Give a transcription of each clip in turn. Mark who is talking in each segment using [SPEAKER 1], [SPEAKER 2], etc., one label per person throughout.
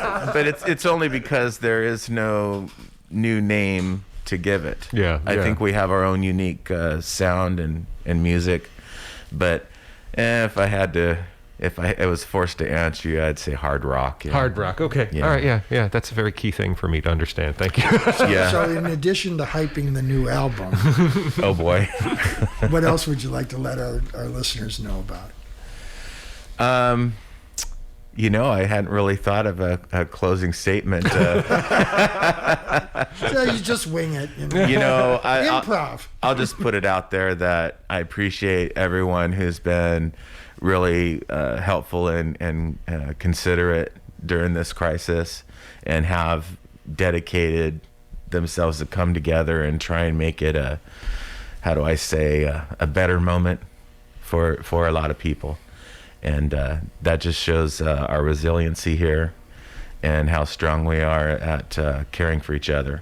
[SPEAKER 1] but it's it's only because there is no new name to give it.
[SPEAKER 2] Yeah,
[SPEAKER 1] I
[SPEAKER 2] yeah.
[SPEAKER 1] think we have our own unique uh, sound and and music. But eh, if I had to, if I, I was forced to answer you, I'd say hard rock. Yeah.
[SPEAKER 2] Hard rock. Okay.
[SPEAKER 1] Yeah.
[SPEAKER 2] All right. Yeah. Yeah. That's a very key thing for me to understand. Thank you.
[SPEAKER 1] Yeah.
[SPEAKER 3] So, in addition to hyping the new album,
[SPEAKER 1] oh boy.
[SPEAKER 3] what else would you like to let our, our listeners know about?
[SPEAKER 1] Um, you know, I hadn't really thought of a, a closing statement. Uh,
[SPEAKER 3] So you just wing it. You know?
[SPEAKER 1] you know, I, I'll-
[SPEAKER 3] Improv.
[SPEAKER 1] I'll just put it out there that I appreciate everyone who's been really uh, helpful and and uh, considerate during this crisis, and have dedicated themselves to come together and try and make it a how do I say a, a better moment for for a lot of people, and uh, that just shows uh, our resiliency here and how strong we are at uh, caring for each other.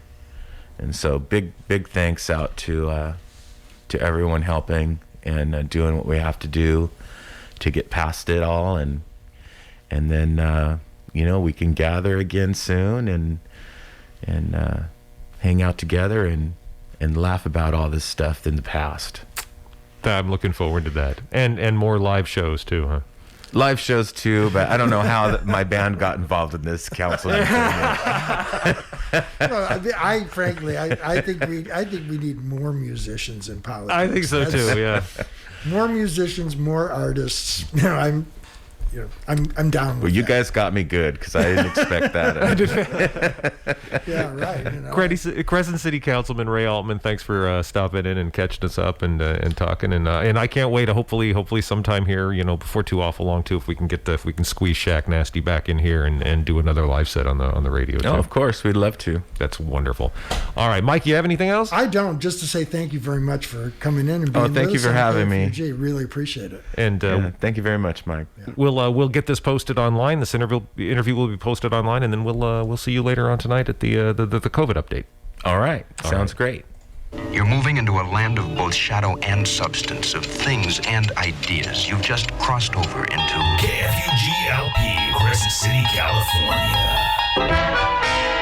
[SPEAKER 1] And so big big thanks out to uh, to everyone helping and uh, doing what we have to do to get past it all and and then uh, you know we can gather again soon and and uh, hang out together and and laugh about all this stuff in the past.
[SPEAKER 2] I'm looking forward to that, and and more live shows too, huh?
[SPEAKER 1] Live shows too, but I don't know how that my band got involved in this counseling. thing.
[SPEAKER 3] Well, I, mean, I frankly, I, I think we, I think we need more musicians in politics.
[SPEAKER 2] I think so
[SPEAKER 3] That's-
[SPEAKER 2] too. Yeah.
[SPEAKER 3] More musicians, more artists. You know, I'm, you know, I'm, I'm down. With
[SPEAKER 1] Well, you
[SPEAKER 3] that.
[SPEAKER 1] guys got me good because I didn't expect that.
[SPEAKER 3] yeah, right. You know,
[SPEAKER 2] Crescent Crescent City Councilman Ray Altman, thanks for uh, stopping in and catching us up and uh, and talking and uh, and I can't wait. To hopefully, hopefully sometime here, you know, before too awful long too, if we can get the if we can squeeze Shaq Nasty back in here and, and do another live set on the on the radio.
[SPEAKER 1] No,
[SPEAKER 2] Too.
[SPEAKER 1] of course we'd love to.
[SPEAKER 2] That's wonderful. All right, Mike, you have anything else?
[SPEAKER 3] I don't. Just to say thank you very much for coming in and being.
[SPEAKER 1] Oh, thank
[SPEAKER 3] with
[SPEAKER 1] you
[SPEAKER 3] us
[SPEAKER 1] for
[SPEAKER 3] on
[SPEAKER 1] having me.
[SPEAKER 3] KFUG. Really appreciate it.
[SPEAKER 2] And uh,
[SPEAKER 1] Yeah, thank you very much, Mike.
[SPEAKER 2] We'll uh, we'll get this posted online. This interview interview will be posted online, and then we'll uh, we'll see you later on tonight at the uh, the, the the COVID update.
[SPEAKER 1] All right, sounds great.
[SPEAKER 4] You're moving into a land of both shadow and substance, of things and ideas. You've just crossed over into.
[SPEAKER 5] KFUGLP, Crescent City, California.